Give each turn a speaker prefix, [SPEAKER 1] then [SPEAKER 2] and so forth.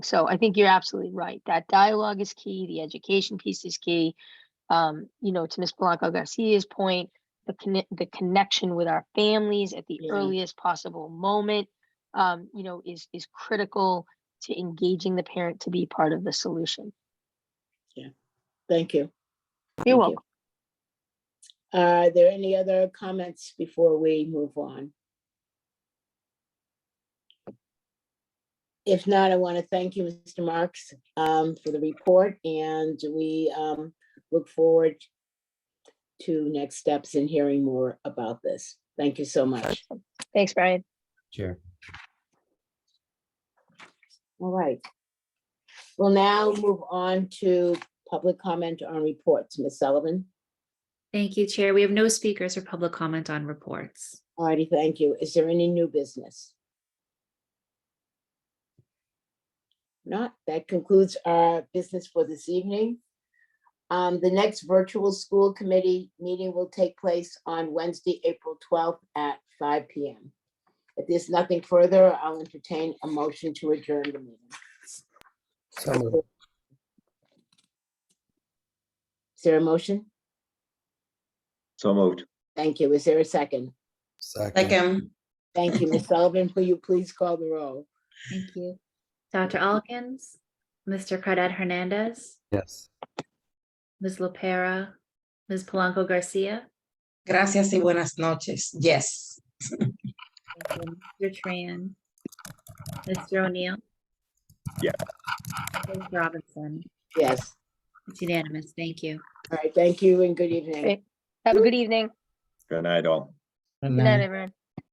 [SPEAKER 1] So I think you're absolutely right. That dialogue is key. The education piece is key. Um, you know, to Ms. Blanco Garcia's point, the conne- the connection with our families at the
[SPEAKER 2] Yeah.
[SPEAKER 1] earliest possible moment, um, you know, is is critical to engaging the parent to be part of the solution.
[SPEAKER 2] Thank you.
[SPEAKER 1] You're
[SPEAKER 2] Thank
[SPEAKER 1] welcome.
[SPEAKER 2] you. Are there any other comments before we move on? If not, I want to thank you, Mr. Marks, um, for the report, and we um, look forward to next steps and hearing more about this. Thank you so much.
[SPEAKER 1] Thanks, Brian.
[SPEAKER 3] Chair.
[SPEAKER 2] All right. We'll now move on to public comment on reports. Ms. Sullivan?
[SPEAKER 4] Thank you, Chair. We have no speakers or public comment on reports.
[SPEAKER 2] All righty, thank you. Is there any new business? Not, that concludes our business for this evening. Um, the next virtual school committee meeting will take place on Wednesday, April twelfth at five P M. If there's nothing further, I'll entertain a motion to adjourn the meeting.
[SPEAKER 3] So moved.
[SPEAKER 2] Is there a motion?
[SPEAKER 5] So moved.
[SPEAKER 2] Thank you. Is there a second?
[SPEAKER 3] Second.
[SPEAKER 6] um,
[SPEAKER 2] Thank you, Ms. Sullivan. Will you please call the roll?
[SPEAKER 4] Thank you. Dr. Alkins, Mr. Cardad Hernandez,
[SPEAKER 3] Yes.
[SPEAKER 4] Ms. Lopera, Ms. Polanco Garcia,
[SPEAKER 6] Gracias y buenas noches. Yes.
[SPEAKER 4] Mr. Tran, Mr. O'Neill.
[SPEAKER 5] Yeah.
[SPEAKER 4] Ms. Robinson,
[SPEAKER 2] Yes.
[SPEAKER 4] it's unanimous. Thank you.
[SPEAKER 2] All right, thank you and good evening.
[SPEAKER 1] Great. Have a good evening.
[SPEAKER 5] Good night all.
[SPEAKER 1] Good night, everyone.